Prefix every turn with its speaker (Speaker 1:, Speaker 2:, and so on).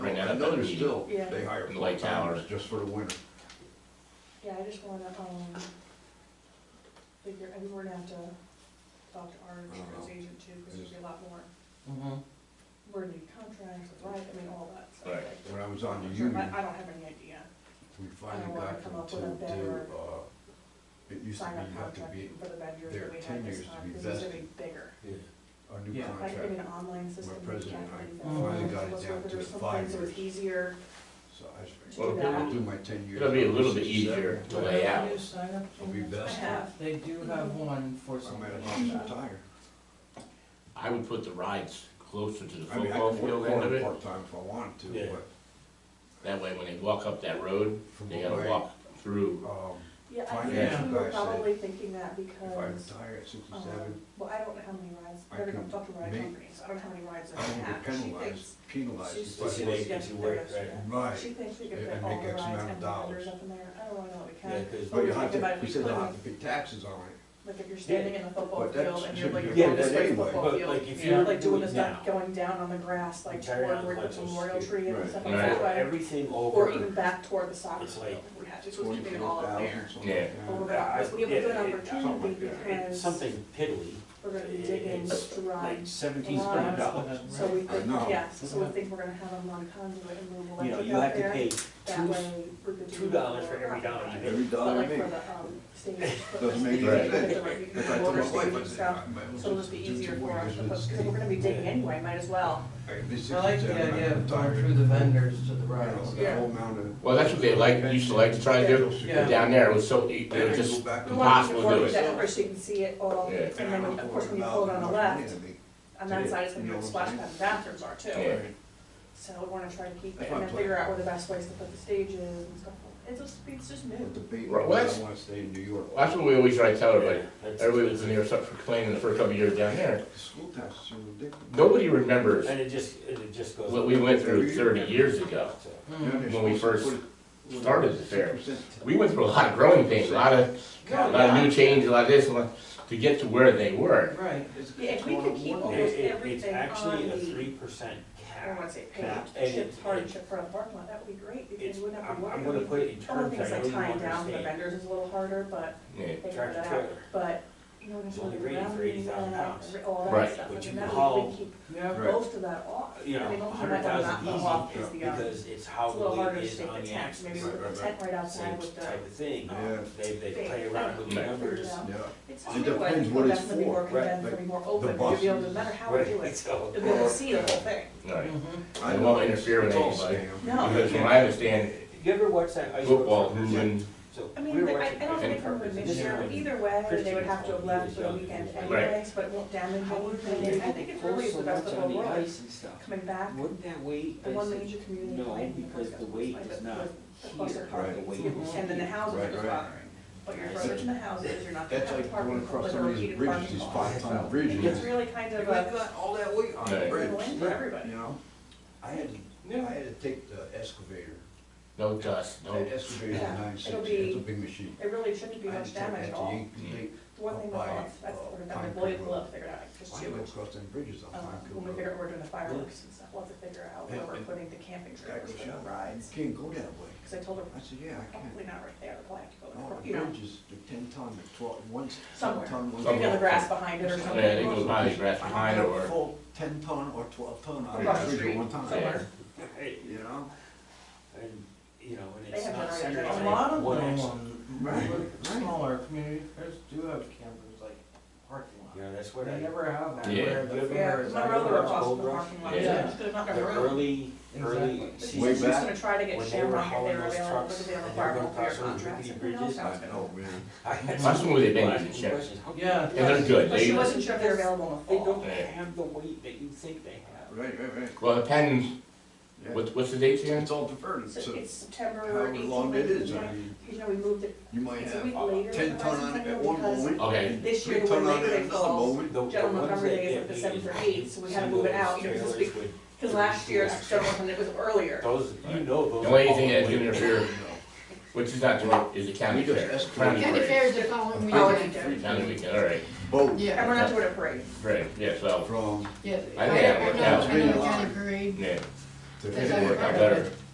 Speaker 1: I know they're still,
Speaker 2: Yeah.
Speaker 1: they hire
Speaker 3: In light
Speaker 1: full-timers
Speaker 3: hours.
Speaker 1: just for the winter.
Speaker 2: Yeah, I just wanna, um, figure, I mean, we're gonna have to talk to our
Speaker 1: Uh-huh.
Speaker 2: insurance agent too, because there's a lot more,
Speaker 4: Mhm.
Speaker 2: we're new contracts, right, I mean, all that stuff.
Speaker 3: Right.
Speaker 2: like-
Speaker 1: When I was on the
Speaker 2: Sure,
Speaker 1: union,
Speaker 2: but I don't have any idea,
Speaker 1: we
Speaker 2: I
Speaker 1: finally
Speaker 2: don't wanna
Speaker 1: got
Speaker 2: come up
Speaker 1: them
Speaker 2: with a
Speaker 1: to do,
Speaker 2: better
Speaker 1: uh, it used to
Speaker 2: sign
Speaker 1: be,
Speaker 2: up
Speaker 1: you have to
Speaker 2: contract
Speaker 1: be,
Speaker 2: for the vendors
Speaker 1: their
Speaker 2: that we had
Speaker 1: tenures
Speaker 2: this
Speaker 1: to
Speaker 2: time,
Speaker 1: be
Speaker 2: because it's gonna be
Speaker 1: vested.
Speaker 2: bigger.
Speaker 1: our new
Speaker 4: Yeah.
Speaker 2: Like in
Speaker 1: contract,
Speaker 2: an online system. you
Speaker 1: president
Speaker 2: can't
Speaker 1: and I
Speaker 2: really
Speaker 4: finally
Speaker 2: vet.
Speaker 1: got it
Speaker 2: Let's
Speaker 1: down
Speaker 2: look,
Speaker 1: to
Speaker 2: there's some
Speaker 1: five
Speaker 2: things that was
Speaker 1: years.
Speaker 2: easier,
Speaker 1: so I just
Speaker 2: To do
Speaker 1: figured,
Speaker 2: that.
Speaker 1: I'll do my ten years.
Speaker 3: It'll be a little bit
Speaker 1: Sixty-seven.
Speaker 3: easier to
Speaker 4: Whatever
Speaker 3: lay out.
Speaker 4: you sign up
Speaker 1: Will be
Speaker 4: for,
Speaker 2: I
Speaker 1: best.
Speaker 2: have,
Speaker 4: They do have one for
Speaker 1: I might
Speaker 4: somebody.
Speaker 1: have lost a tire.
Speaker 3: I would put the rides closer to the
Speaker 1: I mean, I
Speaker 3: football
Speaker 1: could
Speaker 3: field
Speaker 1: work
Speaker 3: end
Speaker 1: on
Speaker 3: of
Speaker 1: it
Speaker 3: it.
Speaker 1: part-time if I wanted to,
Speaker 5: Yeah.
Speaker 1: but,
Speaker 3: That way, when they walk up that road,
Speaker 1: From
Speaker 3: they
Speaker 1: what
Speaker 3: gotta
Speaker 1: way?
Speaker 3: walk through.
Speaker 1: um,
Speaker 2: yeah, I
Speaker 1: Financial
Speaker 2: think we were
Speaker 1: guy said,
Speaker 2: probably thinking
Speaker 1: if
Speaker 2: that
Speaker 1: I
Speaker 2: because,
Speaker 1: retire at
Speaker 2: um,
Speaker 1: sixty-seven,
Speaker 2: well, I don't know how many rides,
Speaker 1: I
Speaker 2: they're gonna
Speaker 1: can
Speaker 2: talk to ride
Speaker 1: make-
Speaker 2: companies, I don't know how many rides I
Speaker 1: I won't
Speaker 2: have.
Speaker 1: get
Speaker 2: She thinks-
Speaker 1: penalized, penalized.
Speaker 2: She's
Speaker 1: if I
Speaker 2: just
Speaker 5: Especially
Speaker 1: work.
Speaker 5: if
Speaker 2: gets
Speaker 5: you
Speaker 2: the
Speaker 5: work,
Speaker 2: rest of
Speaker 5: right.
Speaker 2: that. She
Speaker 1: Right,
Speaker 2: thinks we could
Speaker 1: And-
Speaker 2: fit
Speaker 1: and
Speaker 2: all
Speaker 1: make
Speaker 2: the
Speaker 1: X
Speaker 2: rides
Speaker 1: amount of
Speaker 2: and the vendors
Speaker 1: dollars.
Speaker 2: up in there, Oh, I don't really know that we
Speaker 5: Yeah,
Speaker 2: can.
Speaker 5: 'cause-
Speaker 1: but you
Speaker 2: think
Speaker 1: have
Speaker 2: about
Speaker 1: to,
Speaker 2: it,
Speaker 1: we
Speaker 2: we
Speaker 1: said they'll
Speaker 2: couldn't-
Speaker 1: have to pay taxes on it,
Speaker 2: Like if you're standing in the football
Speaker 1: But that
Speaker 2: field and you're
Speaker 1: should
Speaker 2: like,
Speaker 1: be
Speaker 2: going
Speaker 1: a
Speaker 2: this
Speaker 5: good
Speaker 2: way to the
Speaker 1: idea.
Speaker 2: football
Speaker 5: but like
Speaker 2: field,
Speaker 5: if
Speaker 4: Yeah,
Speaker 5: you're
Speaker 2: like doing the
Speaker 5: doing now,
Speaker 2: stuff going down on the grass, like
Speaker 5: Entire
Speaker 2: toward where
Speaker 5: complex
Speaker 2: the
Speaker 5: was
Speaker 2: memorial
Speaker 5: screwed.
Speaker 2: tree and
Speaker 1: Right.
Speaker 2: stuff like
Speaker 3: Right.
Speaker 2: that way.
Speaker 5: everything
Speaker 2: Or
Speaker 5: over,
Speaker 2: even back toward the soccer
Speaker 5: It's
Speaker 2: field,
Speaker 5: like
Speaker 2: we had, just was keeping it
Speaker 1: twenty-four
Speaker 2: all up
Speaker 1: thousand,
Speaker 2: there.
Speaker 1: something like
Speaker 2: But we're
Speaker 1: that.
Speaker 2: gonna,
Speaker 5: Yeah,
Speaker 2: it's- we have a good
Speaker 5: yeah, it-
Speaker 1: something
Speaker 2: opportunity
Speaker 1: like that.
Speaker 2: because
Speaker 5: it's something piddly,
Speaker 2: we're gonna be
Speaker 5: it-
Speaker 2: digging
Speaker 5: it's like
Speaker 2: strides,
Speaker 5: seventeen
Speaker 2: Wow.
Speaker 5: hundred dollars.
Speaker 2: so we
Speaker 1: I
Speaker 2: think,
Speaker 1: know.
Speaker 2: yes, so we think we're gonna have them on conduit and move
Speaker 5: You know,
Speaker 2: electric
Speaker 5: you have
Speaker 2: out
Speaker 5: to
Speaker 2: there,
Speaker 5: pay
Speaker 2: that
Speaker 5: two,
Speaker 2: way we're gonna do.
Speaker 5: two dollars for every
Speaker 2: more.
Speaker 5: dollar you pay.
Speaker 1: Every
Speaker 2: But
Speaker 1: dollar I
Speaker 2: like for
Speaker 1: make.
Speaker 2: the, um, stage.
Speaker 1: Doesn't make
Speaker 3: any
Speaker 1: If I told my wife, I
Speaker 2: Water
Speaker 1: said,
Speaker 2: stuff,
Speaker 1: I might as
Speaker 2: so it'll
Speaker 1: well
Speaker 2: just be
Speaker 1: do
Speaker 2: easier
Speaker 1: two
Speaker 2: for
Speaker 1: more
Speaker 2: us,
Speaker 1: years with the
Speaker 2: because
Speaker 1: state.
Speaker 2: we're gonna be digging anyway, might as well.
Speaker 1: I can be
Speaker 4: I like the
Speaker 1: 67,
Speaker 4: idea
Speaker 1: I'm
Speaker 4: of going
Speaker 1: tired.
Speaker 4: through the vendors to the
Speaker 1: You know,
Speaker 4: rides.
Speaker 1: that whole amount of-
Speaker 3: Well, that's what they like, used to like to try to do,
Speaker 4: Yeah.
Speaker 3: but down there, it was so, it
Speaker 1: Then I
Speaker 3: was
Speaker 1: go
Speaker 3: just,
Speaker 1: back
Speaker 2: We
Speaker 1: to-
Speaker 2: want to
Speaker 3: Impossible to do
Speaker 2: work
Speaker 3: it.
Speaker 2: that first, so you can see it all,
Speaker 3: Yeah.
Speaker 2: and then,
Speaker 1: I'm
Speaker 2: of course, when you
Speaker 1: about
Speaker 2: pull it on the left,
Speaker 1: $4,000
Speaker 2: on that side, it's gonna be
Speaker 1: You know
Speaker 2: where the
Speaker 1: what
Speaker 2: splash
Speaker 1: I'm
Speaker 2: pad and bathrooms are too.
Speaker 3: Yeah.
Speaker 2: So we wanna try to keep
Speaker 1: That's
Speaker 2: it,
Speaker 1: my
Speaker 2: and then
Speaker 1: plan.
Speaker 2: figure out where the best place to put the stages and stuff. It's just, it's just new.
Speaker 1: With the bait,
Speaker 3: Right, well, that's-
Speaker 1: I wanna stay in New York.
Speaker 3: that's what we always try to tell everybody.
Speaker 5: That's-
Speaker 3: Oh, Everybody was in there except for complaining the first couple of years down there.
Speaker 1: The School taxes are ridiculous.
Speaker 3: Nobody remembers
Speaker 5: And it just, and it just goes.
Speaker 3: what we went through thirty years ago.
Speaker 5: So,
Speaker 4: Mm.
Speaker 3: when we first started the fair.
Speaker 1: 6%.
Speaker 3: We went through a lot of growing pains, a lot of, a lot of new change, a lot of this, a lot, to get to where they were.
Speaker 4: Right,
Speaker 1: It's-
Speaker 2: Yeah, if we could keep
Speaker 1: it's
Speaker 5: It,
Speaker 2: all-
Speaker 1: one-
Speaker 2: Almost
Speaker 5: it, it's
Speaker 2: everything
Speaker 5: actually
Speaker 2: on
Speaker 5: a
Speaker 2: the- Oh,
Speaker 5: three percent
Speaker 2: I don't
Speaker 5: cap.
Speaker 2: wanna say
Speaker 5: Cap,
Speaker 2: paid,
Speaker 5: and
Speaker 2: chip,
Speaker 5: it-
Speaker 2: hard
Speaker 5: it-
Speaker 2: chip for the parking lot, that would be great, because
Speaker 5: It's,
Speaker 2: we wouldn't have to
Speaker 5: I'm,
Speaker 2: work.
Speaker 5: I'm gonna put it in
Speaker 2: Some of
Speaker 5: terms,
Speaker 2: the
Speaker 5: I
Speaker 2: things
Speaker 5: know
Speaker 2: like
Speaker 5: you
Speaker 2: tying down for the
Speaker 5: understand.
Speaker 2: vendors is a little harder, but
Speaker 3: Yeah.
Speaker 2: they figured
Speaker 5: Tractor
Speaker 2: that out.
Speaker 5: trailer.
Speaker 2: But, you know, there's
Speaker 5: It's only
Speaker 2: really
Speaker 5: rated
Speaker 2: ground
Speaker 5: for
Speaker 2: being done,
Speaker 5: 80,000 pounds.
Speaker 2: all that
Speaker 3: Right.
Speaker 2: stuff, and
Speaker 5: But
Speaker 2: then
Speaker 5: you can
Speaker 2: that we- we
Speaker 5: haul-
Speaker 2: keep
Speaker 4: yeah.
Speaker 1: Right.
Speaker 2: most of that off.
Speaker 5: You know,
Speaker 2: I mean, most
Speaker 5: a
Speaker 2: of
Speaker 5: hundred
Speaker 2: that will not
Speaker 5: thousand
Speaker 2: go off is
Speaker 5: easy,
Speaker 2: the, um,
Speaker 5: because it's how
Speaker 2: It's a little
Speaker 5: the
Speaker 2: harder
Speaker 5: weight
Speaker 2: to
Speaker 5: is
Speaker 2: stick
Speaker 5: on
Speaker 2: the
Speaker 5: the
Speaker 2: tax,
Speaker 5: axis.
Speaker 2: maybe with
Speaker 1: Right,
Speaker 2: a
Speaker 1: right,
Speaker 2: tent right outside
Speaker 5: Same
Speaker 2: with the. um,
Speaker 5: type of thing,
Speaker 1: Yeah.
Speaker 5: they, they
Speaker 2: They-
Speaker 5: play around with
Speaker 2: they
Speaker 5: the
Speaker 2: figure
Speaker 5: numbers.
Speaker 2: it out.
Speaker 1: Yeah. It
Speaker 2: It's just a way to
Speaker 1: depends
Speaker 2: go
Speaker 1: what
Speaker 2: back
Speaker 1: it's
Speaker 2: to
Speaker 1: for,
Speaker 2: the more condensed,
Speaker 1: right,
Speaker 2: to be more open,
Speaker 1: the
Speaker 2: you'll be
Speaker 1: buses.
Speaker 2: able to, no matter how we do
Speaker 5: Right,
Speaker 2: it,
Speaker 5: so-
Speaker 2: you'll be able to see the whole thing.
Speaker 3: Right.
Speaker 4: Mhm.
Speaker 1: I
Speaker 3: It
Speaker 1: know
Speaker 3: won't
Speaker 1: it's-
Speaker 3: interfere with
Speaker 1: it's all
Speaker 3: anybody.
Speaker 1: scam.
Speaker 2: No.
Speaker 3: Because from what I understand,
Speaker 5: You ever watch that ice?
Speaker 3: football
Speaker 5: World Cup?
Speaker 3: moving,
Speaker 2: I mean, they- I, I don't think
Speaker 5: So we were watching it in
Speaker 2: we're
Speaker 5: person.
Speaker 2: this year, but either way, they would have to have left for the weekend anyways, but it won't damage anything. I think it really is the best of the
Speaker 6: On the
Speaker 2: world,
Speaker 6: ice and stuff.
Speaker 2: coming back,
Speaker 6: Wouldn't that weight,
Speaker 2: the one major community.
Speaker 6: no, because the weight is not here, part of the weight is
Speaker 2: And then the houses are
Speaker 1: Right,
Speaker 2: just
Speaker 1: right.
Speaker 2: bothering, but your brothers in the houses, you're not gonna
Speaker 1: That's
Speaker 2: have
Speaker 1: like going
Speaker 2: parking,
Speaker 1: across
Speaker 2: but
Speaker 1: some
Speaker 2: they're
Speaker 1: of these
Speaker 2: heated parking
Speaker 1: bridges, these
Speaker 2: lots.
Speaker 1: five-ton
Speaker 2: It's
Speaker 1: bridges.
Speaker 2: really kind
Speaker 1: You
Speaker 2: of
Speaker 1: got
Speaker 2: a,
Speaker 1: got all that weight on the
Speaker 3: Right.
Speaker 1: bridge,
Speaker 2: win for everybody.
Speaker 1: you know? I had, to- I had to take the excavator,
Speaker 3: no dust, no,
Speaker 1: that excavator is
Speaker 2: Yeah,
Speaker 1: nine
Speaker 2: it'll
Speaker 1: six, it's a
Speaker 2: be-
Speaker 1: big machine.
Speaker 2: it really shouldn't be
Speaker 1: I had to
Speaker 2: much
Speaker 1: take
Speaker 2: damage
Speaker 1: that
Speaker 2: at
Speaker 1: to
Speaker 2: all.
Speaker 1: Yankees.
Speaker 2: The one thing
Speaker 1: By,
Speaker 2: that lost, that's
Speaker 1: uh,
Speaker 2: what we're
Speaker 1: Pine
Speaker 2: gonna,
Speaker 1: Creek
Speaker 2: Lloyd
Speaker 1: Road.
Speaker 2: Love figured out, like, just
Speaker 1: Why
Speaker 2: too
Speaker 1: go
Speaker 2: much.
Speaker 1: across them bridges on
Speaker 2: Um,
Speaker 1: Pine Creek
Speaker 2: when we
Speaker 1: Road?
Speaker 2: figure out we're doing the fireworks and stuff, we'll have to figure out where
Speaker 1: Yeah,
Speaker 2: we're
Speaker 1: and-
Speaker 2: putting the camping
Speaker 1: Guy
Speaker 2: trailers
Speaker 1: goes,
Speaker 2: for the
Speaker 1: yeah,
Speaker 2: rides.
Speaker 1: you can't go that way.
Speaker 2: Cause I told her,
Speaker 1: I said, yeah, I can.
Speaker 2: probably not right there, we'll have to go,
Speaker 1: No,
Speaker 2: across,
Speaker 1: the
Speaker 2: you know,
Speaker 1: bridge is the ten ton, the twelve, one's ten
Speaker 2: Somewhere.
Speaker 1: ton, one's.
Speaker 2: maybe on the grass behind it or
Speaker 3: yeah,
Speaker 2: something.
Speaker 3: they go by the grass behind
Speaker 1: I had a
Speaker 3: or,
Speaker 1: full ten ton or twelve ton on
Speaker 2: Across
Speaker 1: the
Speaker 2: the
Speaker 1: bridge at
Speaker 2: street
Speaker 1: one time,
Speaker 2: somewhere.
Speaker 5: Right,
Speaker 1: you know?
Speaker 5: And, you know, and
Speaker 2: They
Speaker 5: it's
Speaker 2: have
Speaker 5: not
Speaker 2: generators.
Speaker 5: centered
Speaker 2: There's
Speaker 4: A
Speaker 5: on
Speaker 4: lot of
Speaker 5: one
Speaker 4: them,
Speaker 5: axis.
Speaker 4: on-
Speaker 1: Right,
Speaker 4: with
Speaker 1: right.
Speaker 4: smaller community fairs do have campers, like parking
Speaker 5: You
Speaker 4: lot.
Speaker 5: know, that's what I,
Speaker 4: They
Speaker 5: the
Speaker 4: never have
Speaker 3: Yeah.
Speaker 4: where the
Speaker 2: Yeah,
Speaker 4: fair is.
Speaker 2: my brother
Speaker 5: was
Speaker 2: across
Speaker 5: Gold
Speaker 2: the
Speaker 5: Rush.
Speaker 2: parking lot,
Speaker 3: Yeah.
Speaker 2: so there's not gonna room.
Speaker 5: early, early
Speaker 4: Exactly.
Speaker 1: Way
Speaker 2: But She's
Speaker 5: season.
Speaker 2: she's
Speaker 1: back
Speaker 2: gonna try to get
Speaker 5: when they were
Speaker 2: Shamrock if they were
Speaker 5: hauling those
Speaker 2: available,
Speaker 5: trucks
Speaker 2: if they were
Speaker 5: and they were
Speaker 2: available
Speaker 5: going
Speaker 2: for your
Speaker 5: across those
Speaker 2: contracts,
Speaker 5: rickety
Speaker 2: and who knows
Speaker 5: bridges,
Speaker 2: how it's
Speaker 1: I
Speaker 2: gonna.
Speaker 1: know, man.
Speaker 5: I had
Speaker 3: That's
Speaker 5: some
Speaker 3: when they
Speaker 5: people
Speaker 3: bend
Speaker 5: asking
Speaker 3: the check.
Speaker 5: questions, how come
Speaker 4: Yeah.
Speaker 3: and they're good,
Speaker 2: But she
Speaker 3: they,
Speaker 2: wasn't sure if they were available
Speaker 5: They
Speaker 2: in the fall.
Speaker 5: don't have the weight that you think they have.
Speaker 1: Right, right, right.
Speaker 3: well, it depends,
Speaker 1: Yeah.
Speaker 3: what's, what's the date again?
Speaker 1: It's all deferred,
Speaker 2: So
Speaker 1: it's a-
Speaker 2: it's September
Speaker 1: however
Speaker 2: eighteenth.
Speaker 1: long it is, I mean,
Speaker 2: You know, we moved it,
Speaker 1: you might
Speaker 2: It's a
Speaker 1: have
Speaker 2: week later
Speaker 1: ten
Speaker 2: than
Speaker 1: ton
Speaker 2: last
Speaker 1: on it
Speaker 2: time
Speaker 1: at one
Speaker 2: because
Speaker 1: moment.
Speaker 3: Okay.
Speaker 1: and
Speaker 2: this year
Speaker 1: Three ton on
Speaker 2: when
Speaker 1: it
Speaker 2: Labor
Speaker 1: at
Speaker 2: Day
Speaker 1: another
Speaker 2: falls,
Speaker 1: moment.
Speaker 5: The- the
Speaker 2: General
Speaker 5: ones
Speaker 2: Montgomery
Speaker 5: that
Speaker 2: Day is
Speaker 5: get
Speaker 2: like
Speaker 5: beat
Speaker 2: December
Speaker 5: is
Speaker 2: 8th, so we had to
Speaker 5: some
Speaker 2: move
Speaker 5: of
Speaker 2: it
Speaker 5: those
Speaker 2: out, you know, just
Speaker 5: trailers
Speaker 2: be-
Speaker 5: would-
Speaker 2: because last year's general fund, it was earlier.
Speaker 5: Those, you know those.
Speaker 3: The only
Speaker 5: are
Speaker 3: thing
Speaker 5: all
Speaker 3: that's
Speaker 5: weight.
Speaker 3: gonna interfere, which is not true, is the county
Speaker 1: We just
Speaker 3: fair.
Speaker 1: escalated.
Speaker 3: County
Speaker 1: County
Speaker 3: parade.
Speaker 7: fair the following
Speaker 2: Oh, I didn't
Speaker 7: weekend.
Speaker 2: get it.
Speaker 3: County weekend, all right,
Speaker 1: Both
Speaker 7: Yeah,
Speaker 2: And we're not doing a parade.
Speaker 3: great, yeah, so,
Speaker 1: from,
Speaker 7: yeah.
Speaker 3: I think I have one
Speaker 7: Another-
Speaker 3: now.
Speaker 7: another county parade.
Speaker 3: yeah,
Speaker 7: They're gonna work out better.